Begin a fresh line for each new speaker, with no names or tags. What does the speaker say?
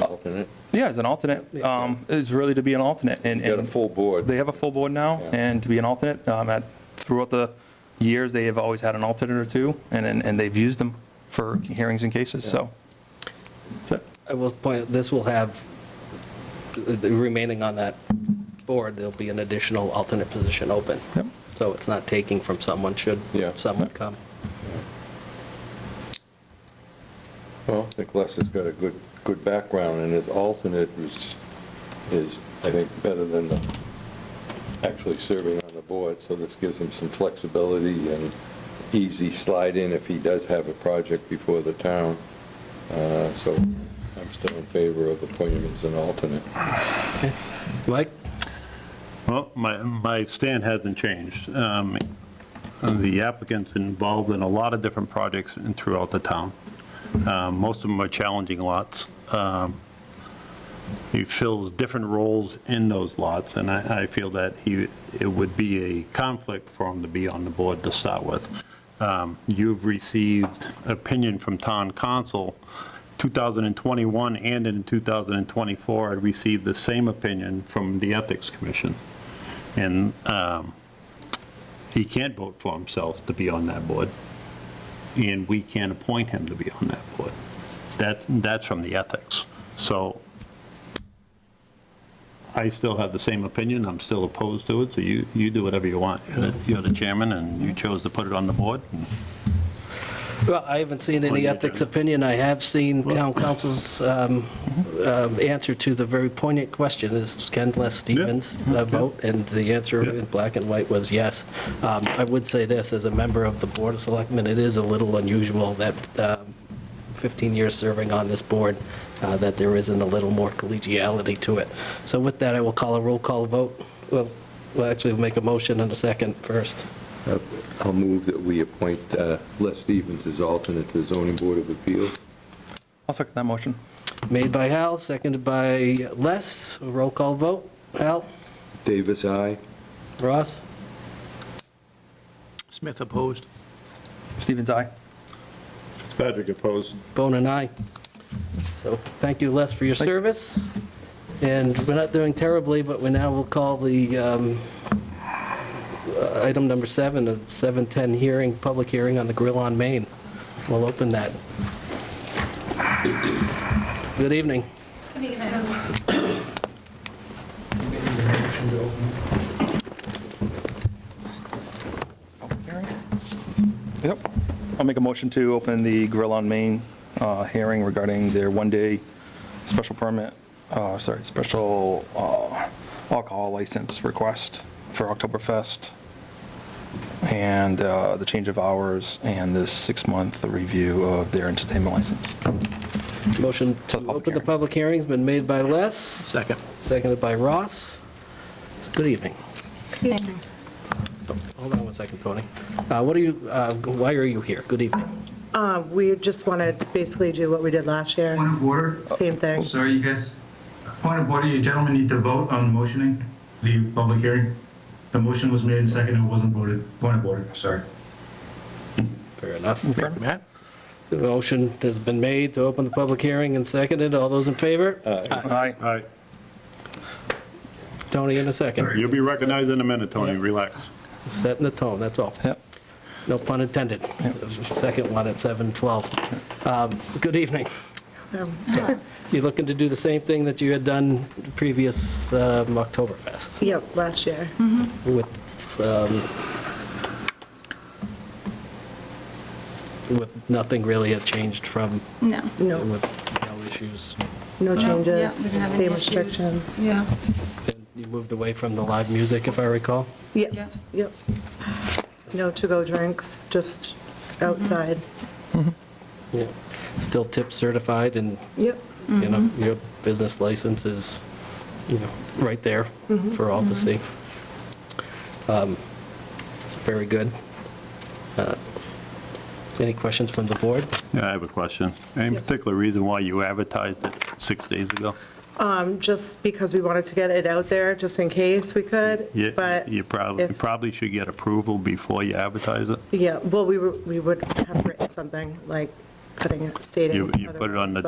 alternate.
Yeah, as an alternate, um, is really to be an alternate. and
You got a
and
full board.
They have a full board now,
Yeah.
and to be an alternate, um, at, throughout the years, they have always had an alternate or two, and, and and they've used them for hearings and cases, so. That's it.
I will point, this will have, the- the remaining on that board, there'll be an additional alternate position open.
Yep.
So it's not taking from someone, should
Yeah.
someone come.
Well, I think Les has got a good, good background, and his alternate is, is, I think, better than the- actually serving on the board, so this gives him some flexibility and easy slide in if he does have a project before the town. Uh, So I'm still in favor of appointing him as an alternate.
Mike?
Well, my, my stand hasn't changed. Um, The applicant's involved in a lot of different projects in- throughout the town. Um, Most of them are challenging lots. Um, He fills different roles in those lots, and I, I feel that he, it would be a conflict for him to be on the board to start with. Um, You've received opinion from town council, 2021 and in 2024, I received the same opinion from the Ethics Commission. And um, he can't vote for himself to be on that board, and we can't appoint him to be on that board. That, that's from the ethics. So I still have the same opinion, I'm still opposed to it, so you, you do whatever you want. You're the- You're the chairman, and you chose to put it on the board, and
Well, I haven't seen
On
any
the
ethics
agenda.
opinion. I have seen town council's um, um, answer to the very poignant question, is Ken Les Stevens uh, vote? And the answer
Yeah.
in black and white was yes. Um, I would say this, as a member of the Board of Selectmen, it is a little unusual that um, 15 years serving on this board, uh, that there isn't a little more collegiality to it. So with that, I will call a roll call vote. Well, we'll actually make a motion in a second first.
Uh, I'll move that we appoint uh, Les Stevens as alternate to the zoning board of appeals.
I'll second that motion.
Made by Hal, seconded by Les. Roll call vote. Hal?
Davis, aye.
Ross?
Smith opposed.
Stevens, aye.
Fitzpatrick opposed.
Bone and I. So thank you, Les, for your service. And we're not doing terribly, but we now will call the um, uh, item number seven, the 7:10 hearing, public hearing on the Grill on Main. We'll open that. Good evening.
Yep. I'll make a motion to open the Grill on Main uh, hearing regarding their one-day special permit, uh, sorry, special uh, alcohol license request for Oktoberfest, and uh, the change of hours, and this six-month review of their entertainment license.
Motion
To the
to
public
open the
hearing.
public hearing's been made by Les,
Second.
seconded by Ross. Good evening.
Evening.
Hold on one second, Tony. Uh, What are you, uh, why are you here? Good evening.
Uh, We just want to basically do what we did last year,
Point of order,
same thing.
sir, you guys, point of order, you gentlemen need to vote on motioning the public hearing. The motion was made and seconded, it wasn't voted. Point of order, sorry.
Fair enough.
Matt?
The motion has been made to open the public hearing and seconded. All those in favor?
Aye.
All right,
Tony in a second.
you'll be recognized in a minute, Tony, relax.
Setting the tone, that's all.
Yep.
No pun intended. Second one at 7:12. Um, Good evening.
Um,
You looking to do the same thing that you had done previous um, Oktoberfest
Yep, last year.
with, um, with nothing really had changed from,
No.
No,
with no issues.
no
Yeah,
changes,
we didn't have any
same
issues.
restrictions.
Yeah.
And You moved away from the live music, if I recall?
Yes, yep. No to-go drinks, just outside.
Yeah. Still tip certified and,
Yep,
you know, your business license is, you know, right there for all to see. Um, Very good. Uh, Any questions from the board?
Yeah, I have a question. Any particular reason why you advertised it six days ago?
Um, just because we wanted to get it out there, just in case we could,
You-
but,
You probably,
if-
probably should get approval before you advertise it.
yeah, well, we were, we would have written something, like, cutting it, stating.
You- you put it on
otherwise,
the